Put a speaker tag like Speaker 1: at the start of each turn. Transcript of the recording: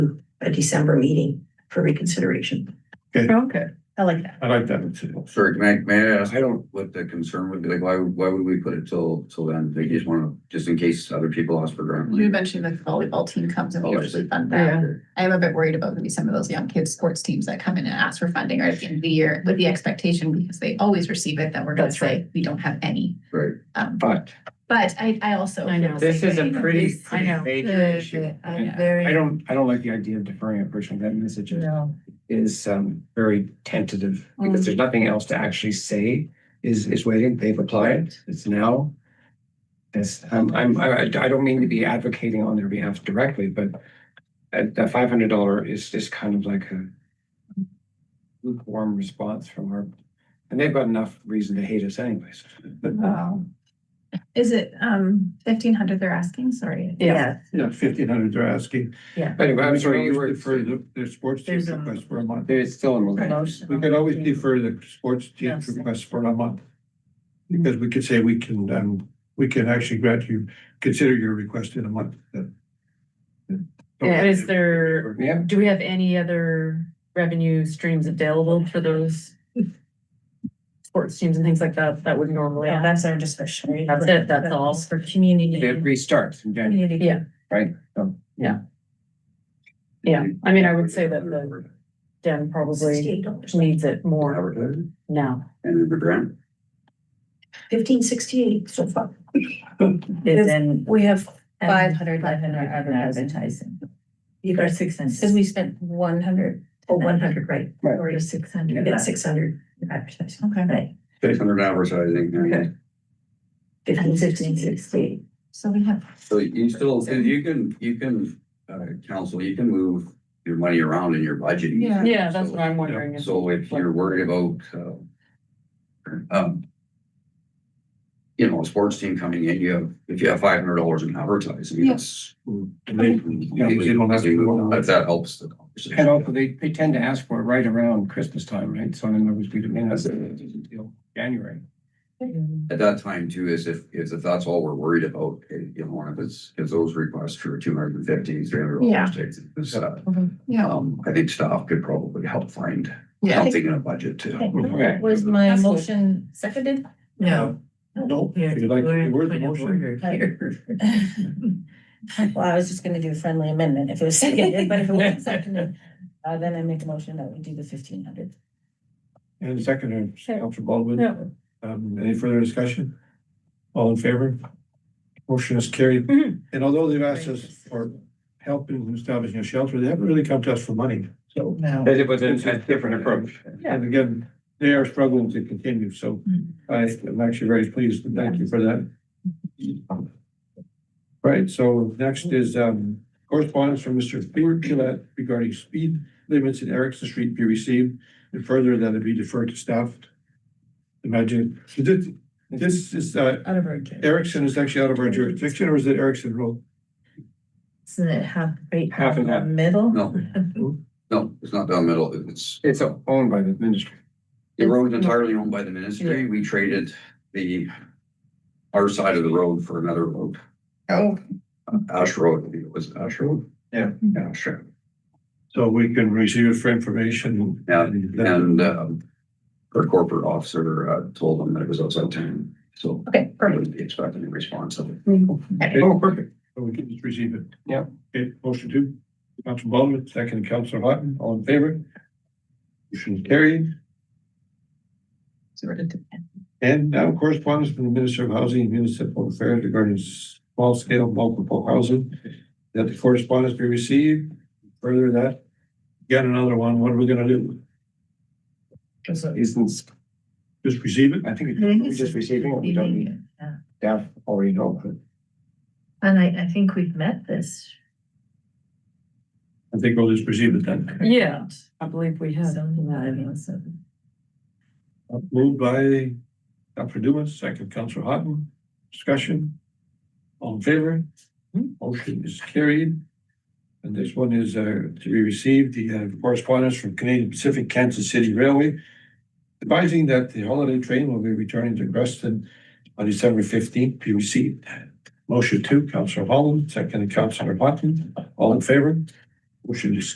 Speaker 1: a December meeting for reconsideration.
Speaker 2: Okay,
Speaker 1: I like that.
Speaker 3: I like that too.
Speaker 4: Sir, can I, may I ask, I don't, what the concern would be, like, why, would- why would we put it till, till then? They just wanna, just in case other people ask for grant.
Speaker 5: You mentioned the volleyball team comes and we usually fund that.
Speaker 2: Yeah.
Speaker 5: I am a bit worried about maybe some of those young kids' sports teams that come in and ask for funding right at the end of the year with the expectation, because they always receive it, that we're gonna
Speaker 2: That's
Speaker 5: say, we don't have any.
Speaker 4: Right.
Speaker 5: Um,
Speaker 3: But
Speaker 5: but I, I also.
Speaker 2: I know.
Speaker 6: This is a pretty,
Speaker 2: I
Speaker 6: pretty
Speaker 2: know.
Speaker 6: major issue.
Speaker 5: I'm
Speaker 6: I don't, I don't like the idea of deferring it personally. That message is- is um very tentative because there's nothing else to actually say is is waiting. They've applied. It's now. This, um, I'm, I, I don't mean to be advocating on their behalf directly, but that, that five hundred dollar is just kind of like a lukewarm response from our, and they've got enough reason to hate us anyways.
Speaker 5: Is it, um, fifteen hundred they're asking? Sorry.
Speaker 2: Yeah.
Speaker 3: Yeah, fifteen hundred they're asking.
Speaker 6: Anyway, I'm sorry, you were,
Speaker 3: Defer the, the sports team
Speaker 2: There's a-
Speaker 3: request for a month.
Speaker 6: there's still in relation.
Speaker 2: Promotion.
Speaker 3: We could always defer the sports team
Speaker 2: Yes.
Speaker 3: request for a month. Because we could say we can, um, we can actually grant you, consider your request in a month.
Speaker 2: Yeah, is there,
Speaker 6: Yeah,
Speaker 2: do we have any other revenue streams available for those? Sports teams and things like that, that would normally.
Speaker 7: Yeah, that's our discretionary.
Speaker 2: That's it, that's all.
Speaker 7: For community.
Speaker 6: it restarts in January.
Speaker 7: Community.
Speaker 2: Yeah.
Speaker 6: Right. So,
Speaker 2: Yeah, I mean, I would say that the Den probably
Speaker 1: Sixty-eight dollars.
Speaker 2: needs it more
Speaker 4: Advertising
Speaker 2: now.
Speaker 4: And the grant.
Speaker 1: Fifteen sixty-eight so far.
Speaker 7: Is
Speaker 2: in.
Speaker 7: We have um,
Speaker 1: Five
Speaker 7: five hundred left in our advertising.
Speaker 1: You
Speaker 7: Or
Speaker 1: got
Speaker 7: six
Speaker 1: Because
Speaker 7: hundred.
Speaker 1: we spent one hundred, oh, one hundred, right?
Speaker 6: Right.
Speaker 1: Or is
Speaker 7: six
Speaker 1: it
Speaker 7: hundred.
Speaker 1: yeah, six hundred advertising.
Speaker 7: Okay.
Speaker 1: Right.
Speaker 4: Six hundred advertising. I mean,
Speaker 7: Okay.
Speaker 1: Fifteen sixteen sixty.
Speaker 5: So we have.
Speaker 4: So you still, you can, you can, uh, council, you can move your money around in your budget.
Speaker 5: Yeah.
Speaker 2: Yeah, that's what I'm wondering. is-
Speaker 4: So if you're worried about, uh, um, you know, a sports team coming in, you have, if you have five hundred dollars in advertising, yes.
Speaker 3: Mm, Yeah, but you don't have to go on.
Speaker 4: If that helps the conversation.
Speaker 6: And also, they, they tend to ask for it right around Christmas time, right? So in other words, we demand that's until January.
Speaker 4: At that time too, is if, is if that's all we're worried about, eh, you know, and if it's, if those requests for two hundred and fifty, three hundred
Speaker 5: Yeah.
Speaker 4: dollars takes. it's, uh,
Speaker 5: Yeah.
Speaker 4: Um, I think staff could probably help find
Speaker 5: Yeah.
Speaker 4: something in a budget too.
Speaker 6: Okay.
Speaker 7: Was my
Speaker 2: That's cool.
Speaker 7: motion seconded?
Speaker 1: No.
Speaker 3: No,
Speaker 7: Yeah,
Speaker 3: you like,
Speaker 7: we're-
Speaker 3: where's the
Speaker 7: we're-
Speaker 3: motion?
Speaker 7: Well, I was just gonna do a friendly amendment if it was seconded, but if it wasn't seconded, uh, then I make a motion that we do the fifteen hundred.
Speaker 3: And second,
Speaker 7: Sure.
Speaker 3: Council Baldwin,
Speaker 2: Yeah.
Speaker 3: um, any further discussion? All in favor? Motion is carried.
Speaker 2: Mhm.
Speaker 3: And although they've asked us for help in establishing a shelter, they haven't really come to us for money, so.
Speaker 7: No.
Speaker 6: It was
Speaker 3: a- a different approach. And again, they are struggling to continue, so I am actually very pleased, and thank you for that. Right, so next is um correspondence from Mr. Peter Gillette regarding speed limits in Erickson Street be received. And further, that it be deferred to staff. Imagine, so this, this is uh
Speaker 7: Out of our. jurisdiction.
Speaker 3: Erickson is actually out of our jurisdiction, or is it Erickson Road?
Speaker 7: Isn't it half, right?
Speaker 6: Half and half.
Speaker 7: Middle?
Speaker 4: No, no, it's not down middle. It's,
Speaker 6: It's owned by the ministry.
Speaker 4: The road's entirely owned by the ministry. We traded the, our side of the road for another road.
Speaker 7: Oh.
Speaker 4: Ash Road, I think it was Ash Road.
Speaker 3: Yeah.
Speaker 4: Yeah, sure.
Speaker 3: So we can receive it for information.
Speaker 4: Yeah,
Speaker 3: and then-
Speaker 4: And, um, our corporate officer, uh, told them that it was outside town, so
Speaker 1: Okay,
Speaker 4: I
Speaker 1: perfect.
Speaker 4: wouldn't be expecting a response of it.
Speaker 3: Oh, perfect. So we can just receive it.
Speaker 6: Yeah.
Speaker 3: Okay, motion two, Council Baldwin, second, Council Hutton, all in favor? Motion carried.
Speaker 5: Sort of depends.
Speaker 3: And now correspondence from the Minister of Housing and Municipal Affairs regarding small scale multiple housing. That the correspondence be received, further that, get another one, what are we gonna do?
Speaker 6: Isn't,
Speaker 3: Just receive it?
Speaker 6: I think it- we're just receiving it. We don't need it.
Speaker 7: Yeah.
Speaker 6: Staff already know. but
Speaker 7: And I, I think we've met this.
Speaker 3: I think we'll just receive it then.
Speaker 2: Yeah, I believe we have.
Speaker 7: Something that I mean, so.
Speaker 3: Moved by Dr. Dumas, second Council Hutton, discussion. All in favor? Motion is carried. And this one is uh, to be received, the uh, correspondence from Canadian Pacific Kansas City Railway advising that the holiday train will be returning to Creston on December fifteenth, be received. Motion two, Council Holland, second Council Hutton, all in favor? Motion is